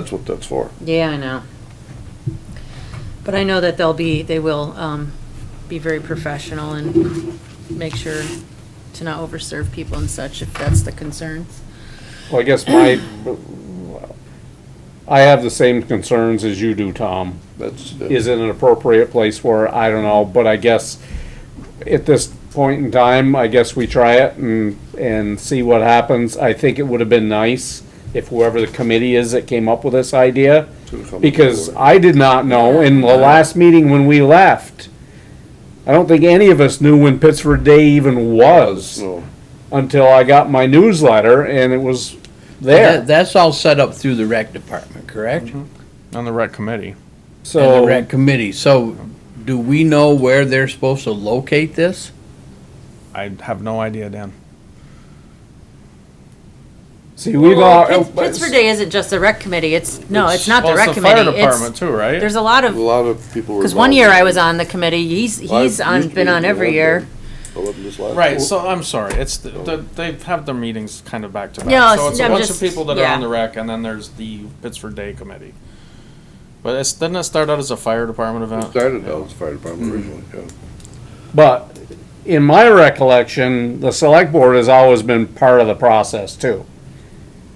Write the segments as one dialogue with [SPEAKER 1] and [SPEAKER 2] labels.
[SPEAKER 1] That's what that's for.
[SPEAKER 2] Yeah, I know. But I know that they'll be, they will um, be very professional and make sure to not overserve people and such, if that's the concern.
[SPEAKER 3] Well, I guess my, I have the same concerns as you do, Tom.
[SPEAKER 1] That's.
[SPEAKER 3] Is it an appropriate place for, it? I don't know, but I guess at this point in time, I guess we try it and, and see what happens. I think it would have been nice if whoever the committee is that came up with this idea,
[SPEAKER 1] To come
[SPEAKER 3] because
[SPEAKER 1] forward.
[SPEAKER 3] I did not know in the last meeting when we left. I don't think any of us knew when Pittsford Day even was
[SPEAKER 1] No,
[SPEAKER 3] until I got my newsletter and it was there.
[SPEAKER 4] That- That's all set up through the rec department, correct? And
[SPEAKER 5] On the rec committee.
[SPEAKER 3] So
[SPEAKER 4] the rec committee. So do we know where they're supposed to locate this?
[SPEAKER 5] I have no idea, Dan.
[SPEAKER 3] see, we've uh, all
[SPEAKER 2] Well, Pitts- Pittsburgh Day isn't just the rec committee, it's, no, it's not the
[SPEAKER 5] Well,
[SPEAKER 2] rec
[SPEAKER 5] it's fire
[SPEAKER 2] committee.
[SPEAKER 5] department
[SPEAKER 2] It's,
[SPEAKER 5] too, right?
[SPEAKER 2] there's a lot
[SPEAKER 1] a
[SPEAKER 2] of,
[SPEAKER 1] lot of people were.
[SPEAKER 2] because one year I was on the committee, he's, he's on, been on every year.
[SPEAKER 5] Right, so I'm sorry, it's, the- the- they have their meetings kind of back to back.
[SPEAKER 2] No,
[SPEAKER 5] So it's a
[SPEAKER 2] I'm
[SPEAKER 5] bunch of
[SPEAKER 2] just-
[SPEAKER 5] people that are
[SPEAKER 2] yeah.
[SPEAKER 5] on the rec, and then there's the Pittsburgh Day Committee. But it's, didn't it start out as a fire department event?
[SPEAKER 1] Started out as fire
[SPEAKER 3] Mm-hmm.
[SPEAKER 1] department originally, yeah.
[SPEAKER 3] But in my recollection, the select board has always been part of the process too.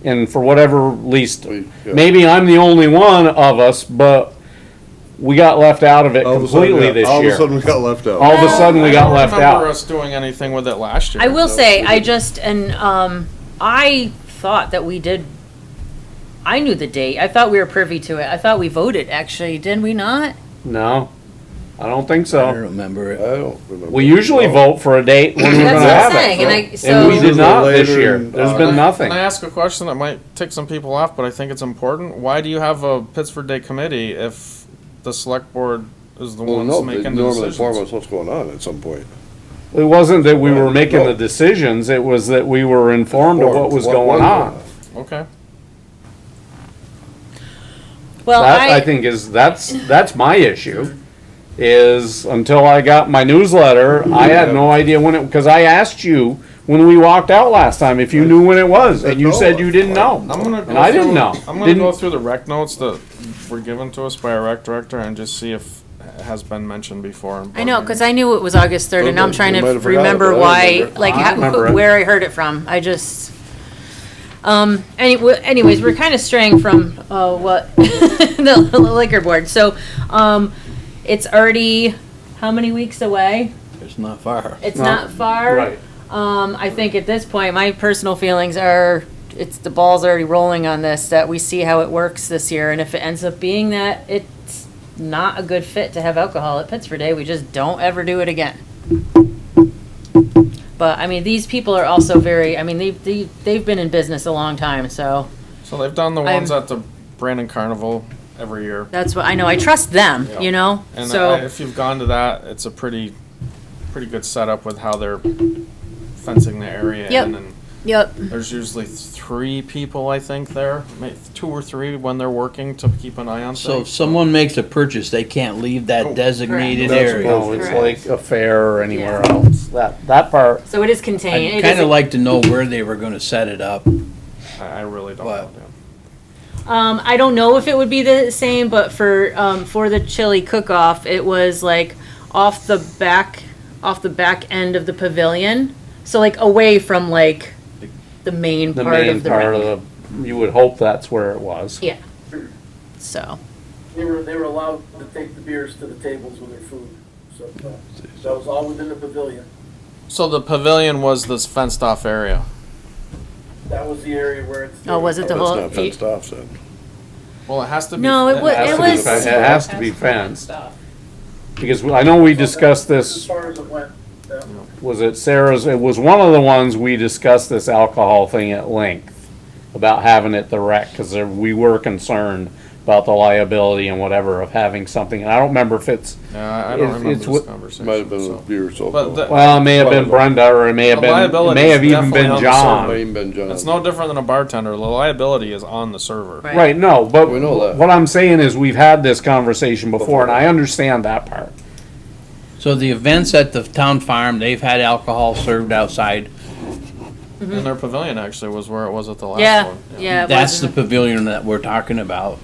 [SPEAKER 3] And for whatever least,
[SPEAKER 1] We- yeah.
[SPEAKER 3] maybe I'm the only one of us, but we got left out of it
[SPEAKER 1] All of a sudden,
[SPEAKER 3] completely
[SPEAKER 1] yeah,
[SPEAKER 3] this
[SPEAKER 1] All of a
[SPEAKER 3] year.
[SPEAKER 1] sudden, we got left out.
[SPEAKER 3] All of a sudden, we
[SPEAKER 5] I
[SPEAKER 3] got
[SPEAKER 5] don't
[SPEAKER 3] left
[SPEAKER 5] remember
[SPEAKER 3] out.
[SPEAKER 5] us doing anything with it last year.
[SPEAKER 2] I will say, I just, and, um, I thought that we did, I knew the date, I thought we were privy to it, I thought we voted, actually, didn't we not?
[SPEAKER 3] No, I don't think
[SPEAKER 4] I
[SPEAKER 3] so.
[SPEAKER 4] don't remember
[SPEAKER 1] I
[SPEAKER 4] it.
[SPEAKER 1] don't remember.
[SPEAKER 3] We usually
[SPEAKER 1] No.
[SPEAKER 3] vote for a date when we're
[SPEAKER 2] That's
[SPEAKER 3] gonna
[SPEAKER 2] what I'm
[SPEAKER 3] have
[SPEAKER 2] saying,
[SPEAKER 3] it.
[SPEAKER 2] and I, so.
[SPEAKER 3] And we did not this
[SPEAKER 1] Later
[SPEAKER 3] year.
[SPEAKER 1] in
[SPEAKER 3] There's
[SPEAKER 1] August.
[SPEAKER 3] been nothing.
[SPEAKER 5] Can I ask a question that might tick some people off, but I think it's important? Why do you have a Pittsburgh Day Committee if the select board is the
[SPEAKER 1] Well,
[SPEAKER 5] ones
[SPEAKER 1] no, they
[SPEAKER 5] making the
[SPEAKER 1] normally inform
[SPEAKER 5] decisions?
[SPEAKER 1] us what's going on at some point.
[SPEAKER 3] It wasn't that we were
[SPEAKER 1] Right.
[SPEAKER 3] making the decisions, it was that we were informed of what was going on.
[SPEAKER 5] Okay.
[SPEAKER 2] Well,
[SPEAKER 3] That,
[SPEAKER 2] I,
[SPEAKER 3] I think is, that's, that's my issue, is until I got my newsletter, I had no idea when it, because I asked you when we walked out last time if you knew when it was, and you said you didn't know.
[SPEAKER 5] I'm gonna go
[SPEAKER 3] And I didn't
[SPEAKER 5] through-
[SPEAKER 3] know.
[SPEAKER 5] I'm gonna
[SPEAKER 3] Didn't-
[SPEAKER 5] go through the rec notes that were given to us by our rec director and just see if it has been mentioned before.
[SPEAKER 2] I know, because I knew it was August 3rd, and now I'm
[SPEAKER 1] Okay,
[SPEAKER 2] trying
[SPEAKER 1] you
[SPEAKER 2] to
[SPEAKER 1] might have forgotten, but
[SPEAKER 2] remember
[SPEAKER 1] I
[SPEAKER 2] why,
[SPEAKER 1] remember.
[SPEAKER 2] like,
[SPEAKER 3] I remember
[SPEAKER 2] how-
[SPEAKER 3] it.
[SPEAKER 2] where I heard it from. I just, um, any- anyways, we're kind of straying from, uh, what, the liquor board. So, um, it's already, how many weeks away?
[SPEAKER 4] It's not far.
[SPEAKER 2] It's
[SPEAKER 3] No.
[SPEAKER 2] not far.
[SPEAKER 3] Right.
[SPEAKER 2] Um, I think at this point, my personal feelings are, it's, the ball's already rolling on this, that we see how it works this year, and if it ends up being that it's not a good fit to have alcohol at Pittsburgh Day, we just don't ever do it again. But, I mean, these people are also very, I mean, they've, they, they've been in business a long time, so
[SPEAKER 5] So they've done the
[SPEAKER 2] I'm-
[SPEAKER 5] ones at the Brandon Carnival every year.
[SPEAKER 2] that's what, I know, I trust them, you know?
[SPEAKER 5] And I-
[SPEAKER 2] So,
[SPEAKER 5] if you've gone to that, it's a pretty, pretty good setup with how they're fencing the area
[SPEAKER 2] Yep.
[SPEAKER 5] in and
[SPEAKER 2] yep,
[SPEAKER 5] There's usually three people, I think, there, may- two or three when they're working to keep an eye on
[SPEAKER 4] So if
[SPEAKER 5] things.
[SPEAKER 4] someone makes a purchase, they can't leave that
[SPEAKER 3] Oh,
[SPEAKER 5] Correct.
[SPEAKER 4] designated
[SPEAKER 1] That's
[SPEAKER 4] area.
[SPEAKER 1] both.
[SPEAKER 3] No, it's
[SPEAKER 2] Correct.
[SPEAKER 3] like a fair or anywhere else, that, that part,
[SPEAKER 2] so it is contained.
[SPEAKER 4] I'd
[SPEAKER 2] It
[SPEAKER 4] kinda
[SPEAKER 2] is-
[SPEAKER 4] like to know where they were gonna set it up.
[SPEAKER 5] I, I really don't
[SPEAKER 4] What?
[SPEAKER 5] know.
[SPEAKER 2] Um, I don't know if it would be the same, but for um, for the chili cook-off, it was like off the back off the back end of the pavilion, so like away from like the main
[SPEAKER 3] the
[SPEAKER 2] part
[SPEAKER 3] main
[SPEAKER 2] of the
[SPEAKER 3] part
[SPEAKER 2] rink.
[SPEAKER 3] of the, you would hope that's where it was.
[SPEAKER 2] yeah. So
[SPEAKER 6] They were, they were allowed to take the beers to the tables with their food, so uh, that was all within the pavilion.
[SPEAKER 5] So the pavilion was this fenced off area.
[SPEAKER 6] That was the area where it's.
[SPEAKER 2] oh, was it
[SPEAKER 1] That's
[SPEAKER 2] the whole?
[SPEAKER 1] not fenced off then.
[SPEAKER 5] Well, it has to be.
[SPEAKER 2] No, it wa-
[SPEAKER 5] has
[SPEAKER 2] it
[SPEAKER 5] to be
[SPEAKER 2] was-
[SPEAKER 3] It has to be fenced, because I know we discussed
[SPEAKER 6] As
[SPEAKER 3] this
[SPEAKER 6] far as it went, yeah.
[SPEAKER 3] was it Sarah's, it was one of the ones we discussed this alcohol thing at length about having it the rec, cause there- we were concerned about the liability and whatever of having something, and I don't remember if it's,
[SPEAKER 5] Yeah, I- I don't
[SPEAKER 3] It's-
[SPEAKER 5] remember
[SPEAKER 3] it's
[SPEAKER 5] this
[SPEAKER 3] wh-
[SPEAKER 5] conversation.
[SPEAKER 1] Might have been a
[SPEAKER 5] so.
[SPEAKER 1] beer or so.
[SPEAKER 5] But the-
[SPEAKER 3] well, it may have been Brenda, or it may have
[SPEAKER 5] The
[SPEAKER 3] been, it
[SPEAKER 5] liability
[SPEAKER 3] may
[SPEAKER 5] is
[SPEAKER 3] have even
[SPEAKER 5] definitely
[SPEAKER 3] been
[SPEAKER 5] on
[SPEAKER 3] John.
[SPEAKER 1] been John.
[SPEAKER 5] It's no different than a bartender. The liability is on the server.
[SPEAKER 2] Right.
[SPEAKER 3] Right, no, but
[SPEAKER 1] We know that.
[SPEAKER 3] what I'm saying is we've had this conversation before, and I understand that part.
[SPEAKER 4] So the events at the town farm, they've had alcohol served outside
[SPEAKER 7] in their pavilion actually was where it was at the last
[SPEAKER 5] Yeah,
[SPEAKER 7] one.
[SPEAKER 5] yeah. it
[SPEAKER 4] That's the
[SPEAKER 5] wasn't-
[SPEAKER 4] pavilion that we're talking about.